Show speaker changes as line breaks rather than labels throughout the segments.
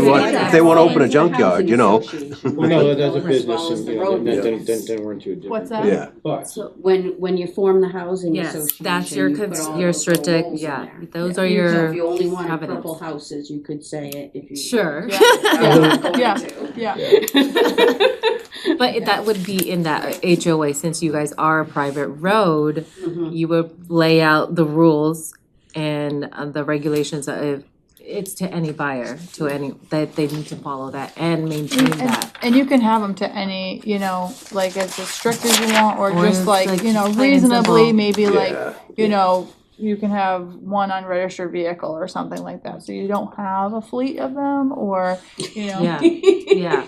want- if they wanna open a junkyard, you know.
Well, no, that's a
As
business,
well as
and,
the
you know,
road
then, then,
business.
then then we're into a different.
What's that?
thing.
Yeah.
But,
When, when you form the housing
Yes, that's your,
association, you put
cons-
all
your
those little
strategic,
rules in
yeah,
there.
those
So
are
if
your,
you only wanted
covenants.
purple houses, you could say it if you.
sure.
Yeah. Yeah.
But it- that would be in that HOA, since you guys are a private road,
Mhm.
you would lay out the rules and uh, the regulations of, it's to any buyer, to any, that they need to follow that and maintain
And,
that.
and you can have them to any, you know, like as strict as you want, or
Or
just
it's
like,
like
you know,
plain and
reasonably,
simple.
maybe like,
Yeah.
you know, you can have one unregistered vehicle or something like that, so you don't have a fleet of them, or, you know,
Yeah, yeah,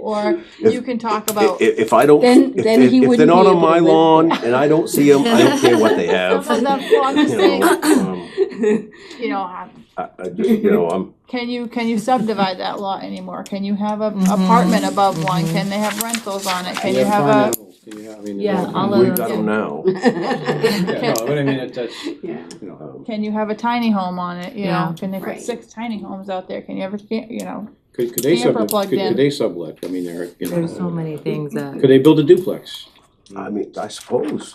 or
If-
you can talk
I-
about.
If, if I don't,
Then-
if,
then
if-
he
if they're
wouldn't
not
be
on
able to
my
live
lawn
there.
and I don't see them, I don't care what they have.
Some of them, well, I'm just
You know,
saying,
um,
you know, have-
I, I just, you know, I'm,
Can you, can you subdivide that lot anymore? Can you have a
Mm-hmm.
apartment above one? Can they have rentals on it? Can you have
farm
a, uh,
animals, Can you have, I mean.
Yeah,
you know,
all of them.
we've got them now.
Yeah, no, but I mean, that- that's, you
Yeah.
know,
Um,
can you have a tiny home on it, you
Yeah.
know? Can they put
Right.
six tiny homes out there? Can you ever, you know?
could, could they
Camper
sublet,
plugged
could,
in.
could they sublet, I mean, they're, you know.
there's so many things that,
Could they build a duplex?
I mean, I suppose,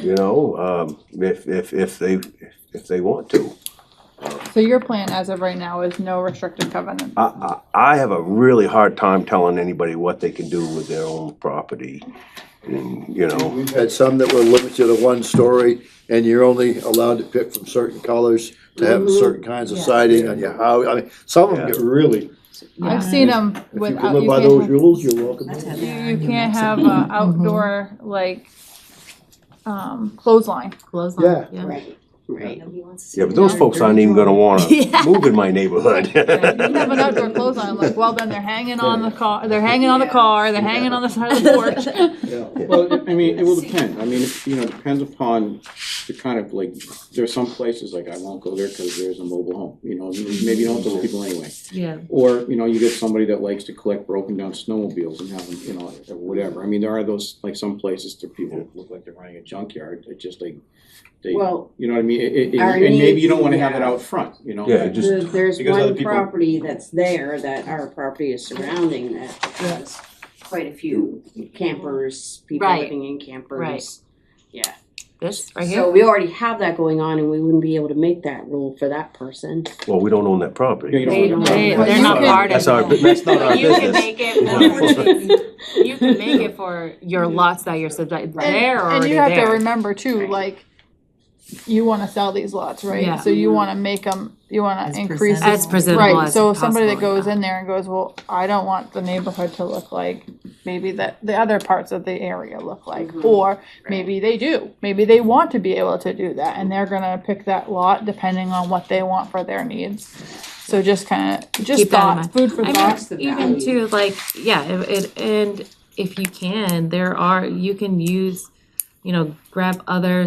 you know, um, if, if, if they, if they want to.
So your plan as of right now is no restrictive covenant.
I, I, I have a really hard time telling anybody what they can do with their own property. And, you know,
We've had some that were limited to one story, and you're only allowed to pick from certain colors to have certain kinds of
Mm-hmm. Yeah.
siding on your house. I mean, some of them get really,
yeah.
I've seen them
if you can
without,
live
you
by those
can't, have-
rules, Mm-hmm. you're welcome.
That's
to.
heavy.
you- you can't have a outdoor, like, um, clothesline.
Close on,
Yeah.
yeah.
Right, right.
yeah, but those folks aren't even gonna wanna move in my neighborhood.
You have an outdoor clothesline, like, well, then they're hanging on the car, they're hanging on the
Yeah.
car, they're hanging on the side of the porch.
Well, I mean, it will depend, I mean, you know, it depends upon the kind of like, there are some places, like, I won't go there because there's a mobile home, you know, maybe you don't have those people anyway.
Yeah,
Or, you know, you get somebody that likes to collect broken down snowmobiles and have them, you know, or whatever. I mean, there are those, like some places that people look like they're running a junkyard, it's just like, they, you know
Well,
what I mean? It- it-
our
And maybe you don't wanna
needs,
have it
yeah.
out front, you know?
Yeah, just-
The- There's
because other
one
people-
property that's there that our property is surrounding that has quite a few campers, people
Right.
living in campers.
Right.
Yeah.
this right
So
here,
we already have that going on and we wouldn't be able to make that rule for that person.
Well, we don't own that
Yeah, you
property.
don't
they,
wanna-
they,
But
they're
you
not
could-
part of
That's our,
it.
that's not our
You can
business.
make it for, you can make it for your lots that you're subject,
And-
they're
And
already
you have to
there.
remember too,
Right.
like, you wanna sell these lots,
Yeah.
right? So you wanna make them, you wanna
Mm-hmm. As
increase.
presentable.
As presentable
Right,
as
so somebody that
possible,
goes
yeah.
in there and goes, well, I don't want the neighborhood to look like maybe that the other parts of the area look like.
Mm-hmm.
Mhm.
Or maybe they do, maybe they want to be able to do that and they're gonna pick that lot depending on what they want for their needs. So just kinda, just
Keep that in
thoughts, food for
I mean,
thought.
the
even
value.
too, like, yeah, it, it, and if you can, there are, you can use, you know, grab other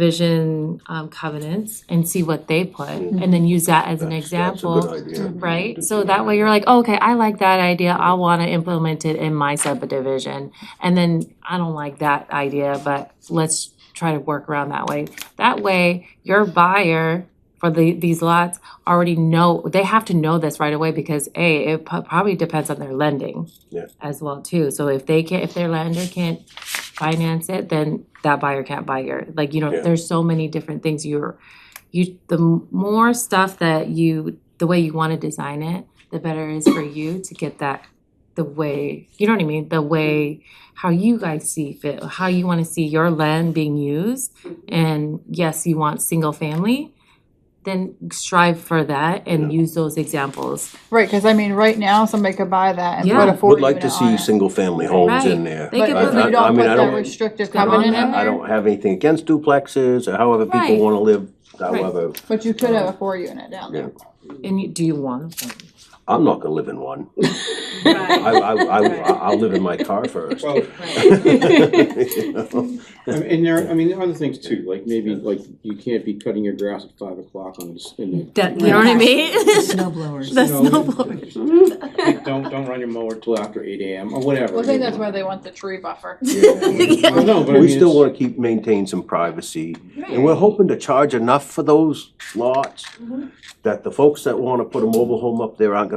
subdivision, um, covenants and see what they put, and then use that as an
That's- that's a good
example,
idea.
right? So that way you're like, "Oh, okay, I like that idea, I wanna implement it in my subdivision, and then I don't like that idea, but let's try to work around that way. That way, your buyer for the, these lots already know, they have to know this right away because A, it po- probably depends on their lending
Yeah.
as well too. So if they can't, if their lender can't finance it, then that buyer can't buy your, like, you know,
Yeah.
there's so many different things you're, you, the m- more stuff that you, the way you want to design it, the better it is for you to get that, the way, you know what I mean? The way, how you guys see fit, how you want to see your land being used. And yes, you want single family, then strive for that and use those examples.
Right, cause I mean, right now, somebody could buy that and
Yeah.
put a four
Would
unit
like to
on
see
it.
single-family homes in there.
They
But
could
I-
if
put-
I-
you
I
don't
mean, I
put that
don't,
restrictive
I
on
covenant
that,
in
I
there,
don't have anything against duplexes or however people
Right.
wanna live, however,
but you could have a four unit down there.
And you, do you want them?
I'm not gonna live in one. I, I, I, I'll live in my car first.
Well,
You know?
I mean, And there, I mean, there are other things too, like maybe, like, you can't be cutting your grass at five o'clock on this, in the.
That, you know what I mean?
Snow blowers.
The
No.
snowboard.
Don't, don't run your mower till after eight AM or whatever.
Well, I think that's why they want the tree buffer.
Well, No, but I mean.
We still
it's-
wanna keep, maintain some privacy, and we're hoping
Mm-hmm.
to charge enough for those lots that the folks that wanna put a mobile home up there aren't